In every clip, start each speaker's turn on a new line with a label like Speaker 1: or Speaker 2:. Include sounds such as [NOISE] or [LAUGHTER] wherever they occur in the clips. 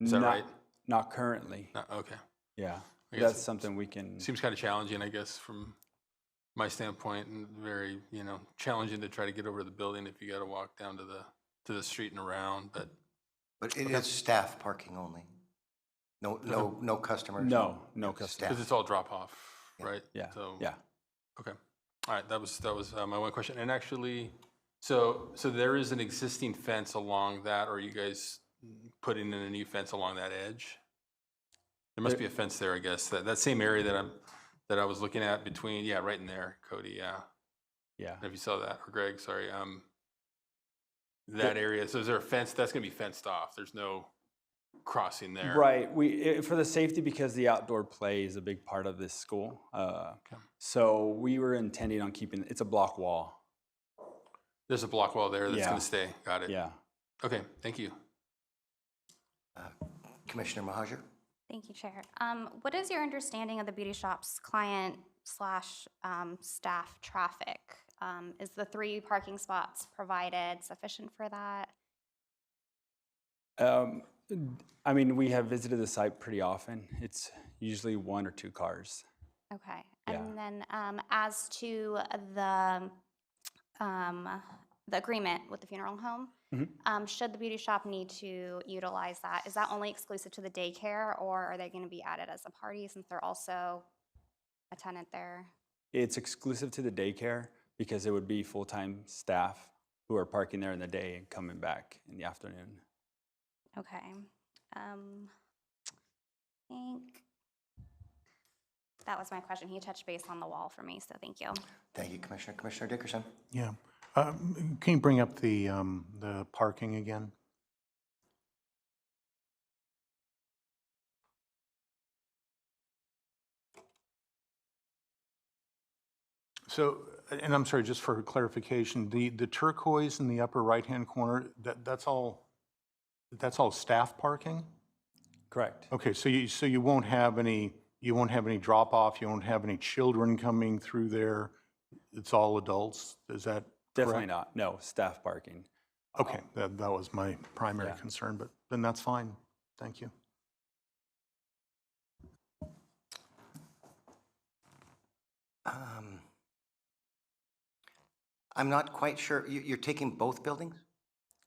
Speaker 1: Is that
Speaker 2: not,
Speaker 1: right?
Speaker 2: Not currently.
Speaker 1: No, okay.
Speaker 2: Yeah,
Speaker 1: I guess
Speaker 2: that's something we can.
Speaker 1: Seems kind of challenging, I guess, from my standpoint, and very, you know, challenging to try to get over to the building if you got to walk down to the, to the street and around, but
Speaker 3: But it is staff parking only? No, no, no customers?
Speaker 2: No, no
Speaker 3: Staff.
Speaker 2: customer.
Speaker 1: Because it's all drop off, right?
Speaker 2: Yeah,
Speaker 1: So,
Speaker 2: yeah.
Speaker 1: Okay. All right, that was, that was uh, my one question. And actually, so, so there is an existing fence along that, or are you guys putting in a new fence along that edge? There must be a fence there, I guess, that, that same area that I'm, that I was looking at between, yeah, right in there, Cody, yeah.
Speaker 2: Yeah,
Speaker 1: If you saw that, or Greg, sorry, um, that area, so is there a fence, that's gonna be fenced off? There's no crossing there?
Speaker 2: right. We i for the safety because the outdoor play is a big part of this school. Uh,
Speaker 1: Okay.
Speaker 2: So we were intending on keeping it's a block wall.
Speaker 1: There's a block wall there that's
Speaker 2: Yeah.
Speaker 1: gonna stay, got it?
Speaker 2: Yeah.
Speaker 1: Okay, thank you.
Speaker 3: Commissioner Mahajer?
Speaker 4: Thank you, Chair. Um, What is your understanding of the beauty shop's client slash um, staff traffic? Um, Is the three parking spots provided sufficient for that?
Speaker 2: Um, d- I mean, we have visited the site pretty often. It's usually one or two cars.
Speaker 4: Okay.
Speaker 2: Yeah.
Speaker 4: And then um, as to the, um, the agreement with the funeral home,
Speaker 2: Mhm.
Speaker 4: um, should the beauty shop need to utilize that? Is that only exclusive to the daycare or are they going to be added as a party since they're also a tenant there?
Speaker 2: It's exclusive to the daycare because it would be full-time staff who are parking there in the day and coming back in the afternoon.
Speaker 4: Okay. Um, I think that was my question. He touched base on the wall for me, so thank you.
Speaker 3: Thank you, Commissioner. Commissioner Dickerson?
Speaker 5: Yeah. Um, Can you bring up the, um, the parking again? So, uh, and I'm sorry, just for clarification, the, the turquoise in the upper right-hand corner, that, that's all, that's all staff parking?
Speaker 2: Correct.
Speaker 5: Okay, so you, so you won't have any, you won't have any drop-off, you won't have any children coming through there? It's all adults? Is that
Speaker 2: Definitely not.
Speaker 5: correct?
Speaker 2: No, staff parking.
Speaker 5: Okay, that, that was my primary
Speaker 2: Yeah.
Speaker 5: concern, but then that's fine. Thank you.
Speaker 3: Um, I'm not quite sure. You, you're taking both buildings?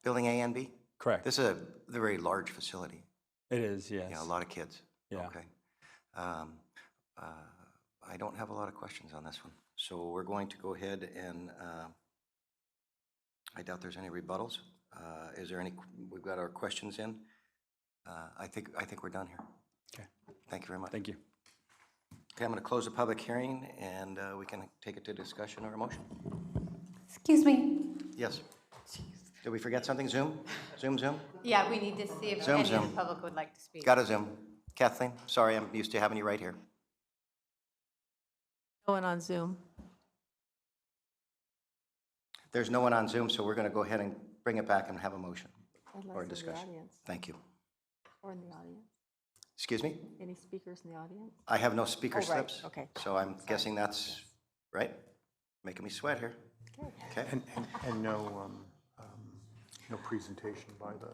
Speaker 3: Building A and B?
Speaker 2: Correct.
Speaker 3: This is a very large facility.
Speaker 2: It is, yes.
Speaker 3: Yeah, a lot of kids.
Speaker 2: Yeah.
Speaker 3: Okay. Um, uh, I don't have a lot of questions on this one. So we're going to go ahead and, uh, I doubt there's any rebuttals. Uh, Is there any, we've got our questions in. Uh, I think, I think we're done here.
Speaker 2: Okay.
Speaker 3: Thank you very much.
Speaker 2: Thank you.
Speaker 3: Okay, I'm going to close the public hearing, and uh, we can take it to discussion or a motion.
Speaker 6: Excuse me.
Speaker 3: Yes? Did we forget something? Zoom? Zoom, Zoom?
Speaker 6: Yeah, we need to see if
Speaker 3: Zoom,
Speaker 6: any of the
Speaker 3: zoom.
Speaker 6: public would like to speak.
Speaker 3: Got a Zoom. Kathleen, sorry, I'm used to having you right here.
Speaker 6: No one on Zoom.
Speaker 3: There's no one on Zoom, so we're going to go ahead and bring it back and have a motion or a discussion. Thank you.
Speaker 7: Or in the audience?
Speaker 3: Excuse me?
Speaker 7: Any speakers in the audience?
Speaker 3: I have no speaker
Speaker 7: Oh, right,
Speaker 3: slips.
Speaker 7: okay.
Speaker 3: So I'm guessing that's, right? Making me sweat here. Okay,
Speaker 5: And, and, and no, um, um, no presentation by the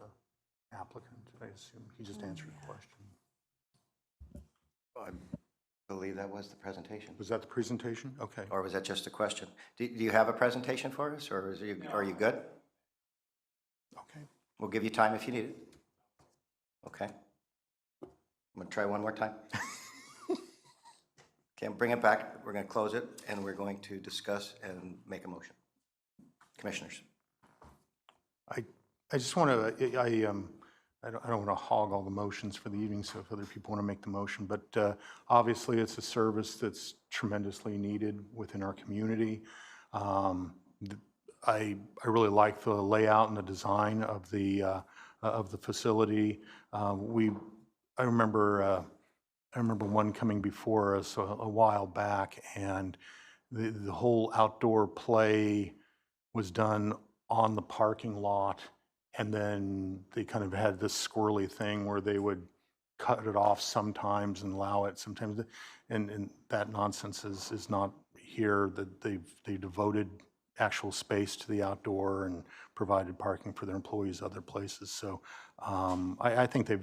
Speaker 5: applicant, I assume. He just answered a question.
Speaker 3: I believe that was the presentation.
Speaker 5: Was that the presentation? Okay.
Speaker 3: Or was that just a question? Do do you have a presentation for us, or is you- are you good?
Speaker 5: Okay.
Speaker 3: We'll give you time if you need it. Okay. I'm going to try one more time. [LAUGHS] Okay, bring it back. We're going to close it, and we're going to discuss and make a motion. Commissioners?
Speaker 5: I, I just want to, I, I, um, I don't, I don't want to hog all the motions for the evening, so if other people want to make the motion, but, uh, obviously it's a service that's tremendously needed within our community. Um, th- I, I really like the layout and the design of the, uh, of the facility. Uh, we, I remember, uh, I remember one coming before us a, a while back and the, the whole outdoor play, was done on the parking lot, and then they kind of had this squirrely thing where they would cut it off sometimes and allow it sometimes, and, and that nonsense is, is not here, that they've, they devoted actual space to the outdoor and provided parking for their employees other places, so um, I, I think they've